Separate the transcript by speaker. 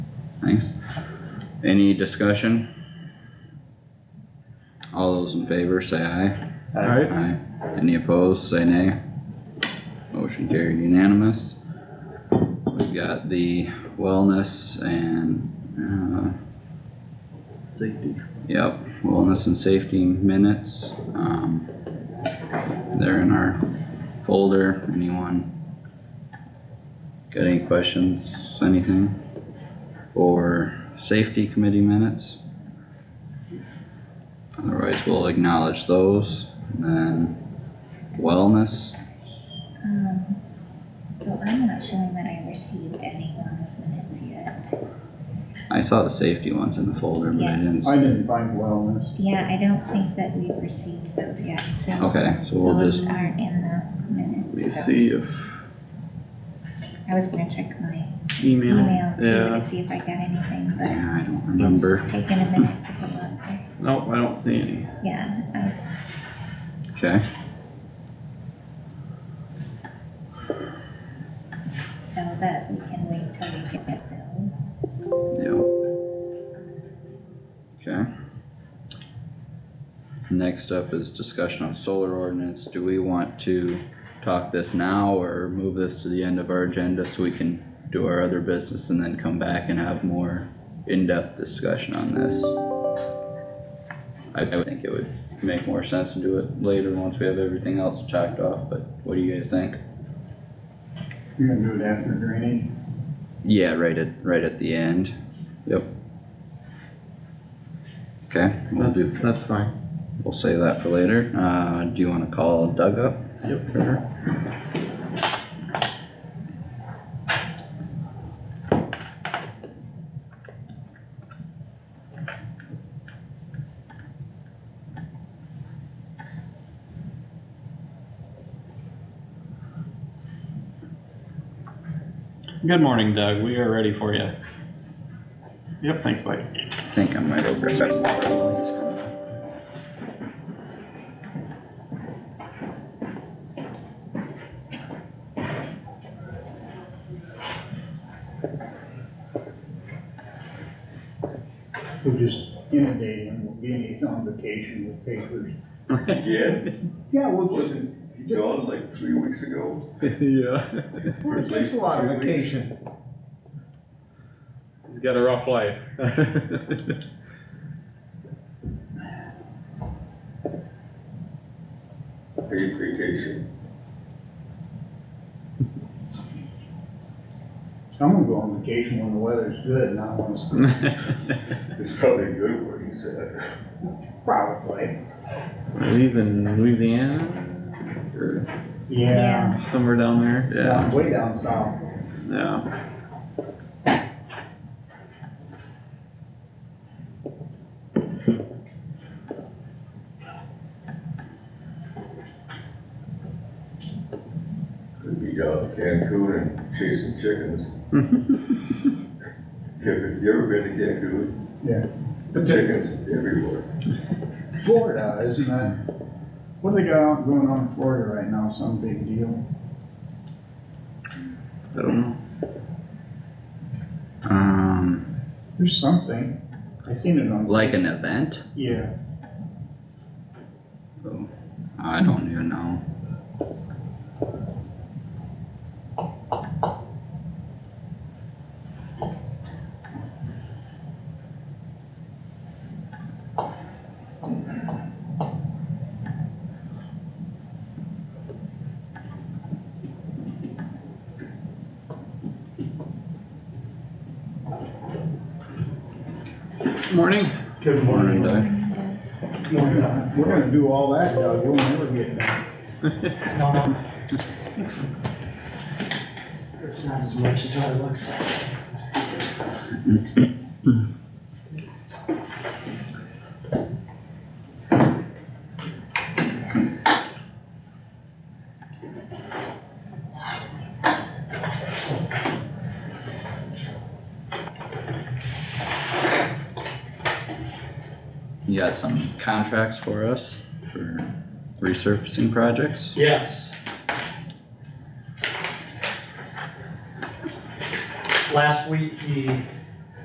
Speaker 1: Thanks. Any discussion? All those in favor say aye.
Speaker 2: Alright.
Speaker 1: Aye. Any opposed, say nay. Motion carried unanimous. We've got the wellness and, uh,
Speaker 2: Safety.
Speaker 1: yep, wellness and safety minutes. Um, they're in our folder. Anyone got any questions, anything? For safety committee minutes? Otherwise, we'll acknowledge those. And then Um, wellness,
Speaker 3: Um, so I'm not showing that I received any wellness minutes yet.
Speaker 1: I saw the safety ones in the folder, but I
Speaker 3: Yeah.
Speaker 1: didn't.
Speaker 4: I
Speaker 1: see-
Speaker 4: didn't find wellness.
Speaker 3: Yeah, I don't think that we've received those yet, so
Speaker 1: Okay, so we'll
Speaker 3: those
Speaker 1: just,
Speaker 3: aren't in the
Speaker 2: Let me
Speaker 3: minutes, so
Speaker 2: see if
Speaker 3: I was gonna check my
Speaker 2: email.
Speaker 3: email too
Speaker 2: Yeah,
Speaker 3: to see if I got anything, but
Speaker 1: yeah, I don't remember.
Speaker 3: it's taken a minute to come up.
Speaker 2: nope, I don't see any.
Speaker 3: Yeah, I,
Speaker 1: Okay,
Speaker 3: so that we can wait till we get those.
Speaker 1: yep. Okay. Next up is discussion of solar ordinance. Do we want to talk this now or move this to the end of our agenda so we can do our other business and then come back and have more in-depth discussion on this? I, I would think it would make more sense to do it later once we have everything else checked off, but what do you guys think?
Speaker 4: You're gonna do it after drainage?
Speaker 1: Yeah, right at, right at the end, yep. Okay, we'll
Speaker 2: That's,
Speaker 1: do,
Speaker 2: that's fine.
Speaker 1: we'll save that for later, uh, do you wanna call Doug up?
Speaker 2: Yep.
Speaker 1: for her?
Speaker 2: Good morning, Doug. We are ready for you. Yep, thanks, Mike.
Speaker 1: I think I might overstep. while he's coming up.
Speaker 4: We'll just inundate him, we'll get him on vacation with papers.
Speaker 5: Yeah,
Speaker 4: Yeah, we'll just,
Speaker 5: wasn't he gone like three weeks ago?
Speaker 2: Yeah.
Speaker 5: Well, it takes a lot of vacation.
Speaker 2: He's got a rough life.
Speaker 5: Paid vacation.
Speaker 4: I'm gonna go on vacation when the weather's good, not when it's
Speaker 2: Mm.
Speaker 5: It's probably good where he's at.
Speaker 4: probably.
Speaker 2: He's in Louisiana or
Speaker 4: Yeah,
Speaker 2: somewhere down there.
Speaker 4: down- way down south.
Speaker 2: Yeah.
Speaker 5: Could be down in Cancun and chasing chickens. You ever, you ever been to Cancun?
Speaker 4: Yeah.
Speaker 5: Chickens everywhere.
Speaker 4: Florida, isn't that, what do they got out going on in Florida right now, some big deal?
Speaker 2: I don't know.
Speaker 1: Um,
Speaker 4: There's something, I seen it on.
Speaker 1: like an event,
Speaker 4: Yeah,
Speaker 1: so, I don't even know.
Speaker 2: Morning.
Speaker 4: good
Speaker 1: Morning,
Speaker 4: morning.
Speaker 1: Doug.
Speaker 4: Morning, Doug. We're gonna do all that, Doug, you'll never get done.
Speaker 6: No. It's not as much as what it looks like.
Speaker 1: You got some contracts for us for resurfacing projects?
Speaker 6: Yes. Last week, he